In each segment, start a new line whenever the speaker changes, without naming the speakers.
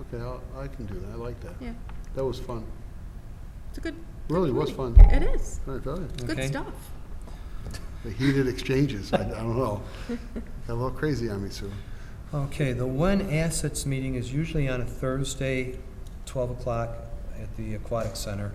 Okay, I'll- I can do that, I like that.
Yeah,
That was fun.
it's a good. good
Really was
committee.
fun.
It is.
I tell you,
It's good
Okay.
stuff.
the heated exchanges, I I don't know. Got a little crazy on me, Sue.
Okay, the When Assets meeting is usually on a Thursday, 12 o'clock at the Aquatic Center.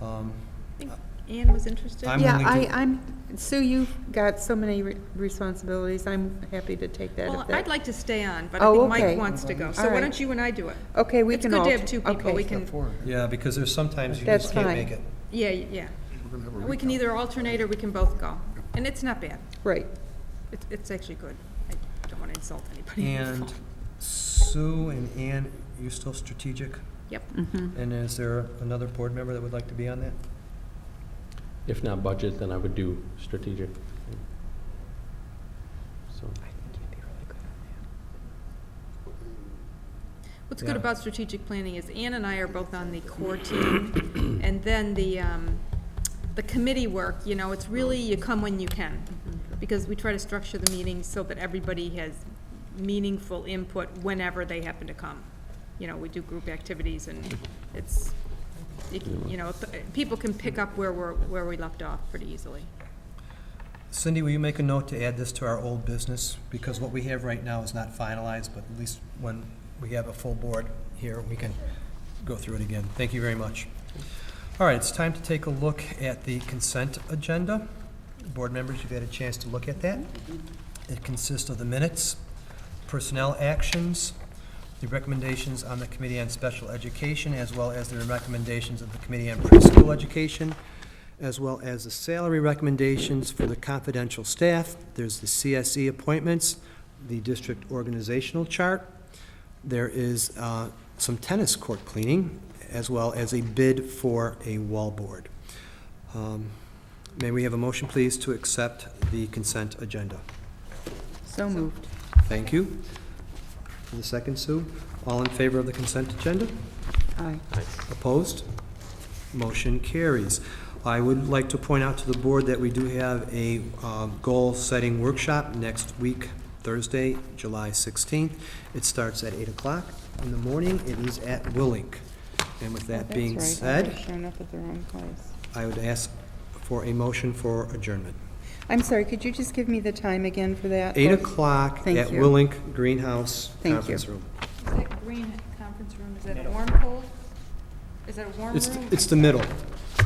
Um,
I think Anne was interested.
I'm
Yeah,
willing
I,
to-
I'm, Sue, you've got so many re- responsibilities, I'm happy to take that.
Well,
if that-
I'd like to stay on, but I
Oh,
think Mike
okay.
wants to go. So
All
why
right.
don't you and I do it?
Okay, we
it's
can
good to
alt-
have two people.
okay.
We can-
Yeah, because there's sometimes you
That's
just can't
fine.
make it.
Yeah, yeah.
We're gonna have a
We can
recap.
either alternate or we can both go. And it's not bad.
Right.
It's, it's actually good. I don't want to insult anybody.
And Sue and Ann, you still strategic?
Yep.
Mm-hmm.
And is there another board member that would like to be on that?
If not budget, then I would do strategic. So,
What's good
Yeah.
about strategic planning is Ann and I are both on the core team, and then the, um, the committee work, you know, it's really, you come when you can,
Mm-hmm.
because we try to structure the meetings so that everybody has meaningful input whenever they happen to come. You know, we do group activities, and it's, you c- you know, th- people can pick up where we're, where we left off pretty easily.
Cindy, will you make a note to add this to our old business? Because what we have right now is not finalized, but at least when we have a full board here, we can go through it again. Thank you very much. All right, it's time to take a look at the consent agenda. Board members, you've had a chance to look at that. It consists of the minutes, personnel actions, the recommendations on the Committee on Special Education, as well as the recommendations of the Committee on Preschool Education, as well as the salary recommendations for the confidential staff. There's the CSE appointments, the district organizational chart. There is uh, some tennis court cleaning, as well as a bid for a wallboard. Um, May we have a motion, please, to accept the consent agenda?
So moved.
Thank you. And the second, Sue. All in favor of the consent agenda?
Aye.
Opposed? Motion carries. I would like to point out to the board that we do have a um, goal-setting workshop next week, Thursday, July 16th. It starts at 8 o'clock in the morning. It is at Willink. And with that being said,
Showing up at the wrong place.
I would ask for a motion for adjournment.
I'm sorry, could you just give me the time again for that?
8 o'clock
Thank
at
you.
Willink Greenhouse
Thank you.
Conference Room.
Is that green conference room, is that a warm cold? Is that a warm
It's, it's the middle.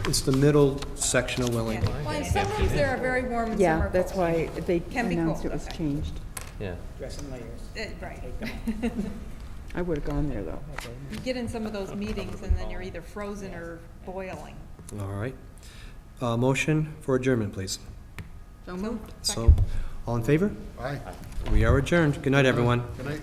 It's the middle section of Willink.
Well, in some rooms, there are very warm and
Yeah, that's why they
Can be
announced
cold,
it was
okay.
changed.
yeah.
Eh, Right.
I would've gone there, though.
You get in some of those meetings and then you're either frozen or boiling.
All right. Uh, Motion for adjournment, please.
So moved.
So, all in favor?
Aye.
We are adjourned. Good night, everyone.
Good night.